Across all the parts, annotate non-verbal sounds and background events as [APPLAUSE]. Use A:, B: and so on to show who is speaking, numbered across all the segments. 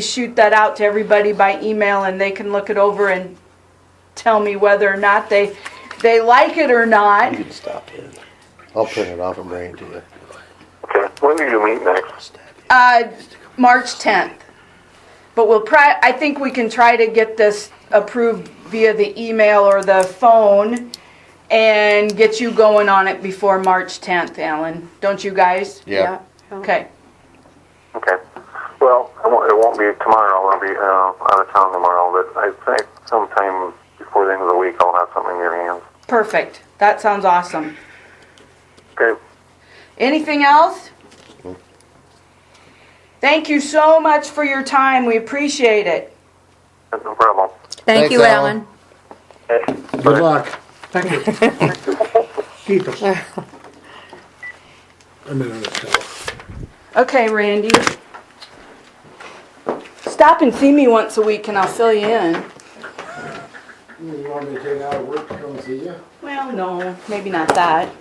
A: shoot that out to everybody by email and they can look it over and tell me whether or not they, they like it or not.
B: You can stop it. I'll print it off and bring it to you.
C: Okay, when do you meet next?
A: Uh, March 10th. But we'll pri, I think we can try to get this approved via the email or the phone and get you going on it before March 10th, Alan. Don't you guys?
B: Yeah.
A: Okay.
C: Okay. Well, I won't, it won't be tomorrow. I'll be uh, out of town tomorrow, but I think sometime before the end of the week I'll have something in your hands.
A: Perfect. That sounds awesome.
C: Okay.
A: Anything else? Thank you so much for your time. We appreciate it.
C: No problem.
B: Thanks,
D: Thank you,
B: Alan.
D: Alan.
E: Good luck. Thank you. Keep it. A minute or so.
A: Okay, Randy. Stop and see me once a week and I'll fill you in.
F: You want me to take out of work to come see you?
A: Well, no, maybe not that.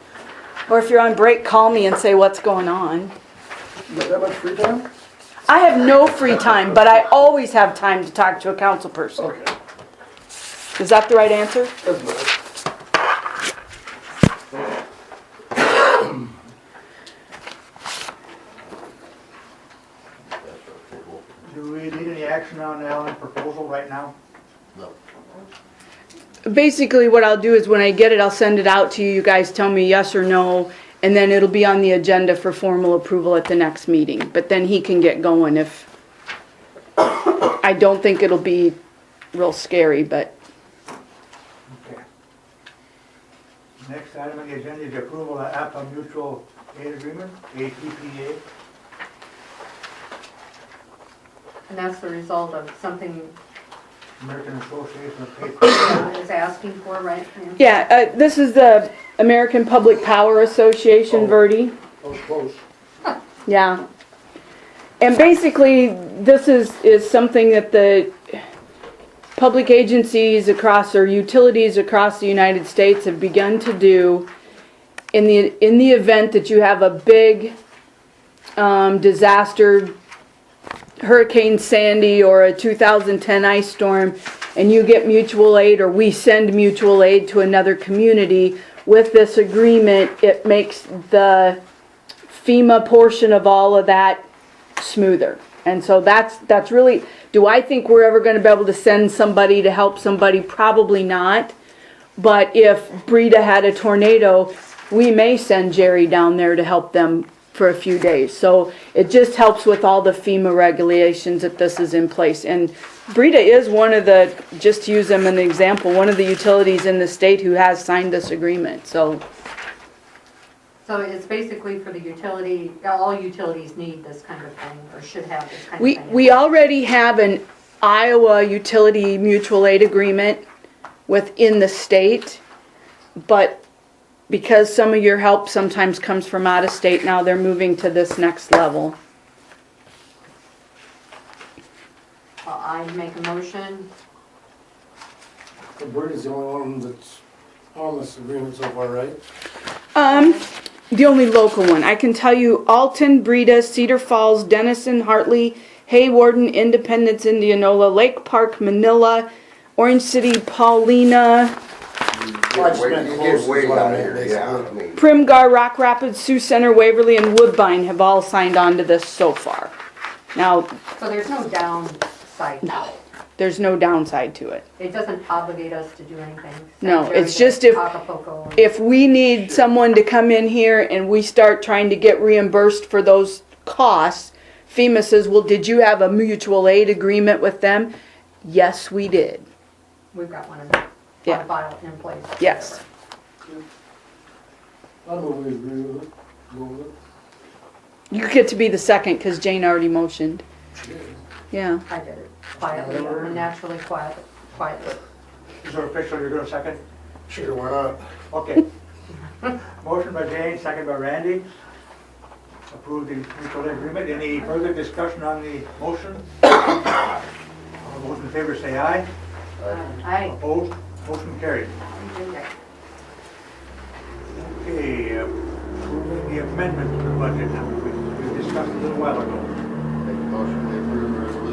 A: Or if you're on break, call me and say what's going on.
F: You got that much free time?
A: I have no free time, but I always have time to talk to a council person.
F: Okay,
A: Is that the right answer?
F: that's better.
G: Do we need any action on Alan's proposal right now?
A: Basically, what I'll do is when I get it, I'll send it out to you. You guys tell me yes or no, and then it'll be on the agenda for formal approval at the next meeting. But then he can get going if, I don't think it'll be real scary, but
G: Okay. Next item on the agenda is approval of APA mutual aid agreement, APPA.
H: And that's the result of something
G: American Association of
F: [LAUGHS]
G: Patriots.
H: I was asking for, right? Yeah.
A: Yeah, uh, this is the American Public Power Association, Verdi.
F: Oh, close.
A: Yeah. And basically, this is, is something that the public agencies across, or utilities across the United States have begun to do in the, in the event that you have a big, um, disaster, Hurricane Sandy or a 2010 ice storm, and you get mutual aid, or we send mutual aid to another community, with this agreement, it makes the FEMA portion of all of that smoother. And so that's, that's really, do I think we're ever gonna be able to send somebody to help somebody? Probably not. But if Breda had a tornado, we may send Jerry down there to help them for a few days. So it just helps with all the FEMA regulations that this is in place. And Breda is one of the, just to use them an example, one of the utilities in the state who has signed this agreement, so.
H: So it's basically for the utility, all utilities need this kind of thing, or should have this kind of
A: We,
H: thing.
A: we already have an Iowa utility mutual aid agreement within the state, but because some of your help sometimes comes from out of state, now they're moving to this next level.
H: Well, I make a motion,
F: Bert is the only one that's on this agreement so far, right?
A: Um, the only local one, I can tell you Alton, Breda, Cedar Falls, Denison, Hartley, Haywarden, Independence, Indianola, Lake Park, Manila, Orange City, Paulina,
F: I just meant
B: You
F: close
B: get
F: is
B: way
F: what I
B: down
F: meant,
B: here, yeah,
F: basically.
B: I mean,
A: Primgar, Rock Rapids, Sioux Center, Waverly, and Woodbine have all signed on to this so far. Now,
H: so there's no downside. No.
A: there's no downside to it.
H: It doesn't obligate us to do anything.
A: No,
H: Sanitary
A: it's just if-
H: Acapulco.
A: If we need someone to come in here and we start trying to get reimbursed for those costs, FEMA says, well, did you have a mutual aid agreement with them? Yes, we did.
H: We've got one in, on
A: Yeah.
H: a file in place.
A: Yes.
F: I don't know if we agree with it, go with it.
A: You get to be the second because Jane already motioned. Yeah.
H: I did it quietly, naturally quiet, quietly.
G: Is it official, you're gonna second?
F: Sure, why not?
G: Okay. [LAUGHS] Motion by Jane, second by Randy. Approve the mutual aid agreement. Any further discussion on the motion? [COUGHS] All those in favor say aye.
H: Um, I,
G: Opposed? Motion carried. Okay, approving the amendment to the budget now. We we discussed a little while ago.
B: make a motion to approve